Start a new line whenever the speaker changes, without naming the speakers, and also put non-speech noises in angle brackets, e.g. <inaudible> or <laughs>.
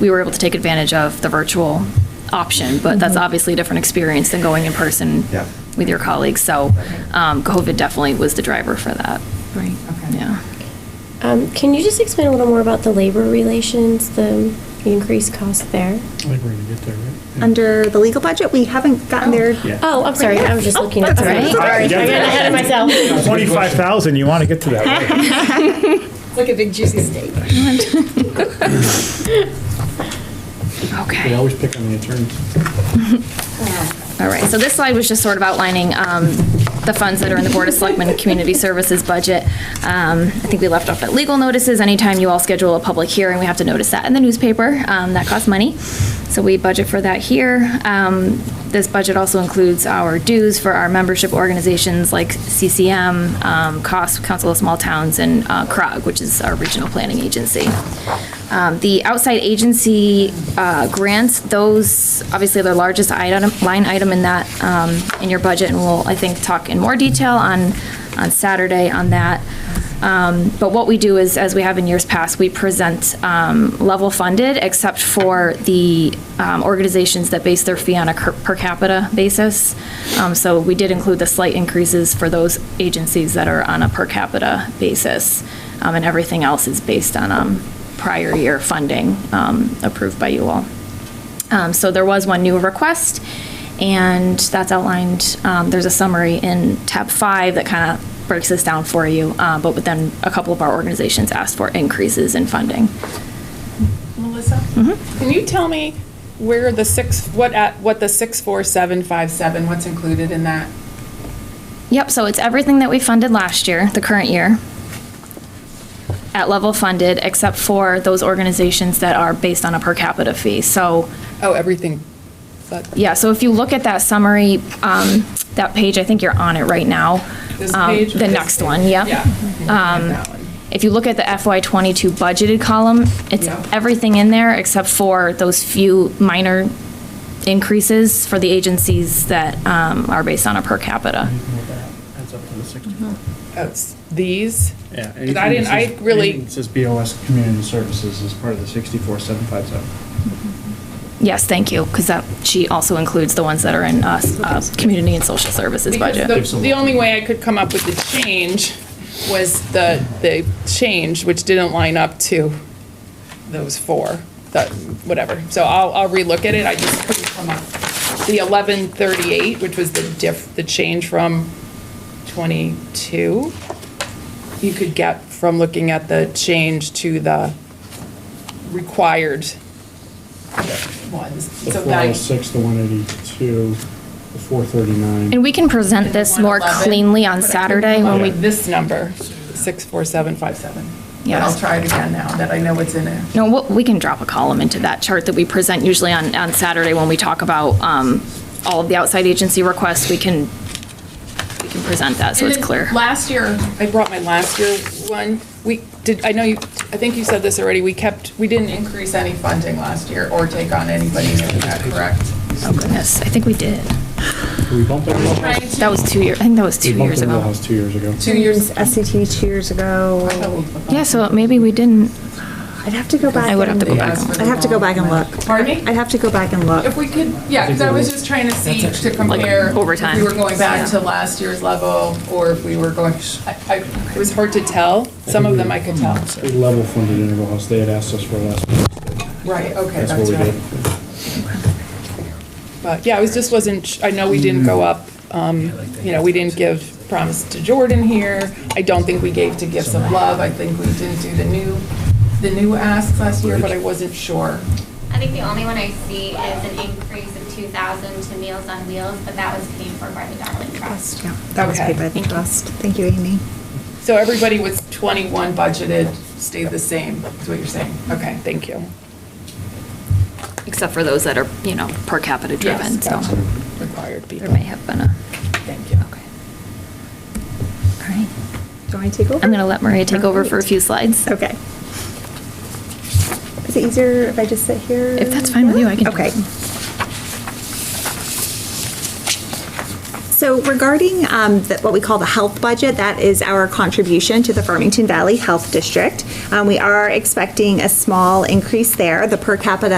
we were able to take advantage of the virtual option, but that's obviously a different experience than going in person
Yeah.
with your colleagues. So um, COVID definitely was the driver for that.
Right.
Yeah.
Um, Can you just explain a little more about the labor relations, the the increased cost there?
I think we're gonna get there, right?
Under the legal budget, we haven't gotten there.
Yeah.
Oh, I'm sorry, I was just looking at
that's all
that.
right.
Sorry, I got ahead of myself.
Twenty-five thousand, you wanna get to that, <laughs> right?
Like a big juicy steak.
Okay.
They always pick on the attorneys.
All right, so this slide was just sort of outlining um, the funds that are in the Board of Selectmen Community Services budget. Um, I think we left off at legal notices. Anytime you all schedule a public hearing, we have to notice that in the newspaper. Um, That costs money, so we budget for that here. Um, This budget also includes our dues for our membership organizations like CCM, um, COS, Council of Small Towns, and uh, CROG, which is our regional planning agency. Um, The outside agency uh, grants, those, obviously, are the largest item, line item in that, um, in your budget, and we'll, I think, talk in more detail on, on Saturday on that. Um, But what we do is, as we have in years past, we present um, level funded, except for the um, organizations that base their fee on a cur- per capita basis. Um, So we did include the slight increases for those agencies that are on a per capita basis, Um, and everything else is based on um, prior year funding um, approved by you all. Um, So there was one new request, and that's outlined, um, there's a summary in tab five that kind of breaks this down for you, uh, but then a couple of our organizations asked for increases in funding.
Melissa,
Mm-hmm.
can you tell me where the six, what at, what the six four seven five seven, what's included in that?
Yep, so it's everything that we funded last year, the current year, at level funded, except for those organizations that are based on a per capita fee. So
Oh, everything, but
yeah, so if you look at that summary, um, that page, I think you're on it right now.
this
um,
page. or
The
this
next
page?
one, yep.
Yeah. Um. That one.
If you look at the FY '22 budgeted column, it's
Yeah.
everything in there except for those few minor increases for the agencies that um, are based on a per capita.
That's up to the sixty-four.
Oh, it's These?
Yeah.
Because I didn't, I really,
It says BOS Community Services is part of the sixty-four, seven, five, seven.
Yes, thank you, because that sheet also includes the ones that are in uh, uh, community and social services budget.
because the, the only way I could come up with the change was the, the change, which didn't line up to those four, that, whatever. So I'll, I'll relook at it, I just couldn't come up. The eleven thirty-eight, which was the diff, the change from twenty-two, you could get from looking at the change to the required ones.
The
So
four
that-
oh six, the one eighty-two, the four
And
thirty-nine.
we can present this more
111,
cleanly on
but I couldn't
Saturday
come up
when we,
with This number, 64757. But
Yes.
I'll try it again now that I know what's in there.
no, what- we can drop a column into that chart that we present usually on, on Saturday when we talk about um, all of the outside agency requests. We can, we can present that, so it's
And then
clear.
Last year, I brought my last year one. We did, I know you, I think you said this already, we kept, we didn't increase any funding last year or take on anybody new, is that correct?
Oh goodness, I think we did.
We bumped up the whole house.
Trying
That
to-
was two years, I think that was
We
two
bumped
years
up the whole
ago.
house two years ago.
Two years.
SAT two years ago.
Yeah, so maybe we didn't,
I'd have to go back.
I would have to
and-
go back.
and-
I'd have to go back and look.
Pardon me?
I'd have to go back and look.
If we could, yeah, because I was just trying to see, to compare.
overtime.
If we were going back to last year's level, or if we were going, I, I, it was hard to tell. Some of them I could tell.
We Mm-hmm. level funded Integral House, they had asked us for last,
Right, okay,
that's what
that's
we
right.
did.
But yeah, I was, just wasn't, sh- I know we didn't go up,
Mm-hmm.
um, you know, we didn't give promise to Jordan here. I don't think we gave to gifts of love. I think we didn't do the new, the new asks last year, but I wasn't sure.
I think the only one I see is an increase of two thousand to Meals on Wheels, but that was paid for by the Darling Trust.
Yeah, that was
Okay.
paid by the trust. Thank you, Amy.
So everybody was 21 budgeted, stayed the same, is what you're saying? Okay, thank you.
except for those that are, you know, per capita driven,
Yes,
so
gotcha. Required people.
there may have been a,
Thank you.
okay. All right,
Do you want me to take over?
I'm going to let Maria take over for a few slides.
Okay. Is it easier if I just sit here?
If that's fine with you, I can do
Okay.
it.
So So regarding um, the- what we call the health budget, that is our contribution to the Farmington Valley Health District. Um, We are expecting a small increase there. The per capita